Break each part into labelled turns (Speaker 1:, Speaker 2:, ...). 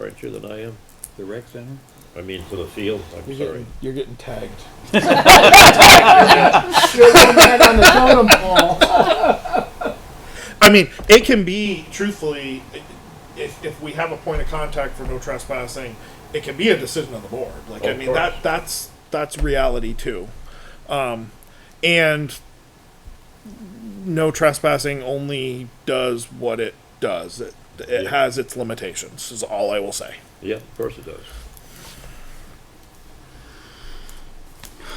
Speaker 1: aren't you, than I am?
Speaker 2: The rec center?
Speaker 1: I mean, for the field, I'm
Speaker 3: You're
Speaker 1: sorry.
Speaker 3: getting, you're getting tagged. You're the man on the totem pole.
Speaker 4: I mean, it can be truthfully, if, if we have a point of contact for no trespassing, it can be a decision of the board. Like I
Speaker 1: Of
Speaker 4: mean,
Speaker 1: course.
Speaker 4: that that's that's reality too, um, and no trespassing only does what it does. It it
Speaker 1: Yeah.
Speaker 4: has its limitations. Is all I will say.
Speaker 1: Yeah, of course it does.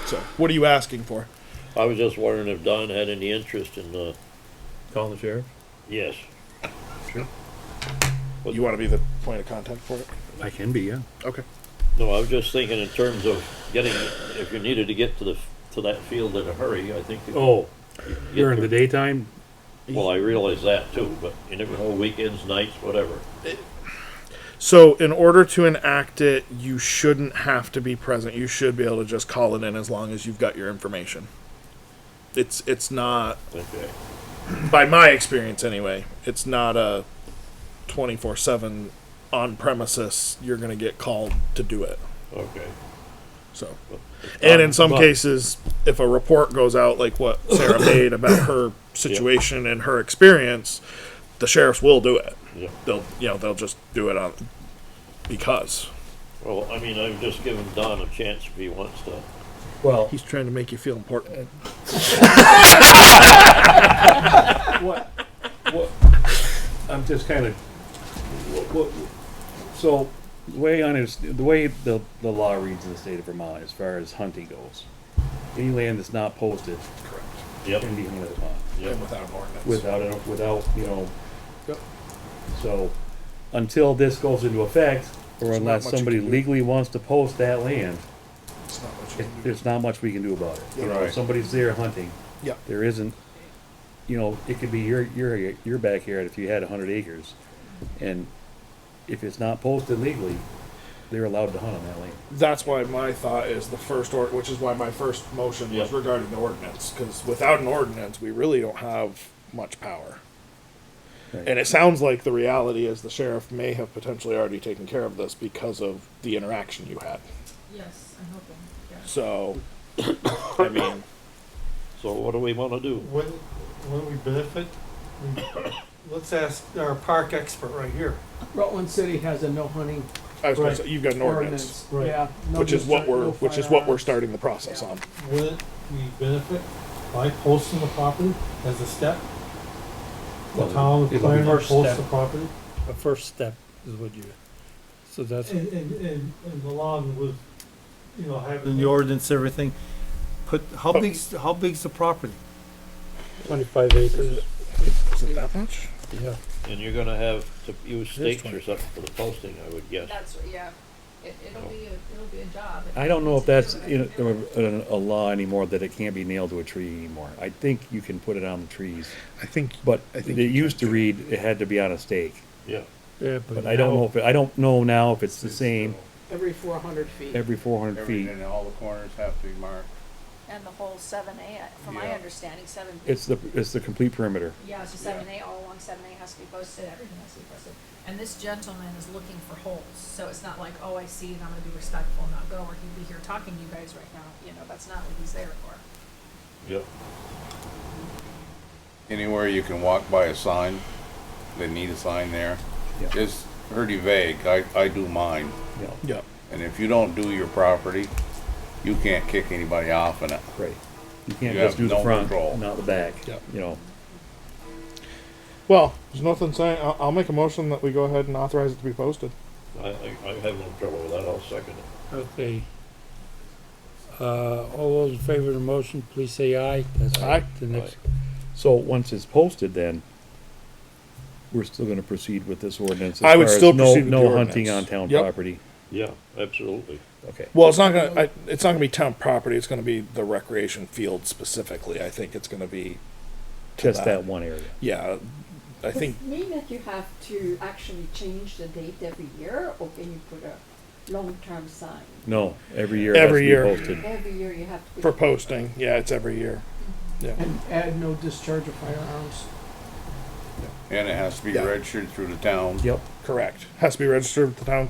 Speaker 4: So, what are you asking for?
Speaker 1: I was just wondering if Don had any interest in, uh,
Speaker 2: Call the sheriff?
Speaker 1: yes,
Speaker 4: You want to be the point of contact for it?
Speaker 2: I can be, yeah.
Speaker 4: Okay.
Speaker 1: no, I was just thinking in terms of getting, if you needed to get to the, to that field in a hurry, I think. you could
Speaker 2: Oh,
Speaker 1: get
Speaker 2: during the
Speaker 1: there.
Speaker 2: daytime,
Speaker 1: Well, I realize that too, but you never know, weekends, nights, whatever.
Speaker 4: So, in order to enact it, you shouldn't have to be present. You should be able to just call it in as long as you've got your information. It's it's not
Speaker 1: Okay,
Speaker 4: by my experience anyway. It's not a 24/7 on premises you're going to get called to do it.
Speaker 1: okay.
Speaker 4: So, and in some
Speaker 2: But-
Speaker 4: cases, if a report goes out like what Sarah made about her situation and her experience, the sheriffs will do it.
Speaker 1: Yeah.
Speaker 4: They'll you know, they'll just do it on because
Speaker 1: Well, I mean, I've just given Don a chance if he wants to.
Speaker 2: well,
Speaker 4: He's trying to make you feel important.
Speaker 2: what, what, I'm just kind of, what, what, so, the way on is, the way the, the law reads in the state of Vermont as far as hunting goes, any land that's not posted
Speaker 1: Yep,
Speaker 2: can be hunted upon
Speaker 1: yep,
Speaker 4: without an ordinance.
Speaker 2: without, it- without, you know.
Speaker 4: Yep.
Speaker 2: So, until this goes into effect, or
Speaker 4: There's not
Speaker 2: unless
Speaker 4: much you
Speaker 2: somebody
Speaker 4: can do.
Speaker 2: legally wants to post that land,
Speaker 4: It's not what
Speaker 2: it, there's not much we can do about it. You
Speaker 4: Yeah.
Speaker 2: know,
Speaker 1: Right.
Speaker 2: if somebody's there hunting.
Speaker 4: Yeah.
Speaker 2: There isn't, you know, it could be your, your, your backyard if you had a hundred acres. And if it's not posted legally, they're allowed to hunt on that land.
Speaker 4: That's why my thought is the first or, which is why my first motion was
Speaker 1: Yeah.
Speaker 4: regarding the ordinance, because without an ordinance, we really don't have much power.
Speaker 2: Right.
Speaker 4: And it sounds like the reality is the sheriff may have potentially already taken care of this because of the interaction you had.
Speaker 5: Yes, I'm hoping, yeah.
Speaker 4: So, I mean,
Speaker 1: so what do we wanna do?
Speaker 6: Wouldn't, wouldn't we benefit? We- Let's ask our park expert right here.
Speaker 3: Rutland City has a no hunting
Speaker 4: I was gonna
Speaker 6: Right.
Speaker 4: say, you've got an ordinance,
Speaker 3: ordinance.
Speaker 6: Right.
Speaker 3: Yeah. no
Speaker 4: which is
Speaker 3: use-
Speaker 4: what
Speaker 3: no
Speaker 4: we're, which is what we're
Speaker 3: firearms.
Speaker 4: starting the process on.
Speaker 6: Wouldn't we benefit by posting the property as a step? The town, the
Speaker 2: It'll be-
Speaker 6: planner
Speaker 7: First
Speaker 6: posts
Speaker 7: step.
Speaker 6: the property,
Speaker 7: a first step is what you, so that's,
Speaker 6: and, and, and, and along with, you know, having.
Speaker 8: the ordinance, everything, put, how big's, how big's the property?
Speaker 7: twenty-five acres,
Speaker 4: Is it that much?
Speaker 7: yeah.
Speaker 1: And you're gonna have to use stakes
Speaker 4: one.
Speaker 1: or something for the posting, I would guess.
Speaker 5: That's, yeah, it, it'll be, a- it'll be a job.
Speaker 2: I don't know if that's in a, in a law anymore, that it can't be nailed to a tree anymore. I think you can put it on the trees,
Speaker 4: I think.
Speaker 2: but
Speaker 4: I
Speaker 2: it
Speaker 4: think
Speaker 2: used to read it had to be on a stake.
Speaker 1: Yeah,
Speaker 7: Yeah,
Speaker 2: But I don't know if, it- I don't know now if it's the same
Speaker 3: Every four hundred feet.
Speaker 2: every four hundred feet.
Speaker 8: all the corners have to be marked.
Speaker 5: And the whole seven A, from my
Speaker 8: Yeah.
Speaker 5: understanding, seven.
Speaker 2: It's the, it's the complete perimeter.
Speaker 5: Yeah, so seven A, all along seven A has to be posted, everything has to be posted. And this gentleman is looking for holes, so it's not like, oh, I see, and I'm gonna be respectful and not go, or he'd be here talking to you guys right now, you know, that's not what he's there for.
Speaker 1: yeah.
Speaker 9: anywhere you can walk by a sign, they need a sign there.
Speaker 2: Yeah.
Speaker 9: Just pretty vague, I, I do mine,
Speaker 2: you know.
Speaker 4: Yeah.
Speaker 9: and if you don't do your property, you can't kick anybody off in it.
Speaker 2: Right. You can't
Speaker 9: You
Speaker 2: just do
Speaker 9: have
Speaker 2: the
Speaker 9: no
Speaker 2: front,
Speaker 9: control.
Speaker 2: not the back,
Speaker 4: Yep.
Speaker 2: you know.
Speaker 4: Well, there's nothing saying, I'll, I'll make a motion that we go ahead and authorize it to be posted.
Speaker 1: I, I, I have no trouble with that, I'll second it.
Speaker 7: Okay. Uh, all those in favor of the motion, please say aye. That's
Speaker 4: Aye.
Speaker 7: The next,
Speaker 2: So once it's posted then, we're still gonna proceed with this ordinance. as
Speaker 4: I would
Speaker 2: far as
Speaker 4: still
Speaker 2: no-
Speaker 4: proceed with the
Speaker 2: No hunting on
Speaker 4: ordinance.
Speaker 2: town
Speaker 4: Yep.
Speaker 2: property.
Speaker 1: Yeah, absolutely.
Speaker 2: Okay.
Speaker 4: Well, it's not gonna, I, it's not gonna be town property, it's gonna be the recreation field specifically, I think it's gonna be,
Speaker 2: Just
Speaker 4: that.
Speaker 2: that one area.
Speaker 4: yeah, I think,
Speaker 10: Does it mean that you have to actually change the date every year, or can you put a long-term sign?
Speaker 2: No, every year it has to
Speaker 4: Every
Speaker 2: be
Speaker 4: year.
Speaker 2: posted.
Speaker 10: Every year you have to. put-
Speaker 4: for posting, yeah, it's every year.
Speaker 3: And add no discharge of firearms.
Speaker 9: And it has to be
Speaker 4: Yeah.
Speaker 9: registered through the town.
Speaker 2: Yep.
Speaker 4: Correct, has to be registered with the town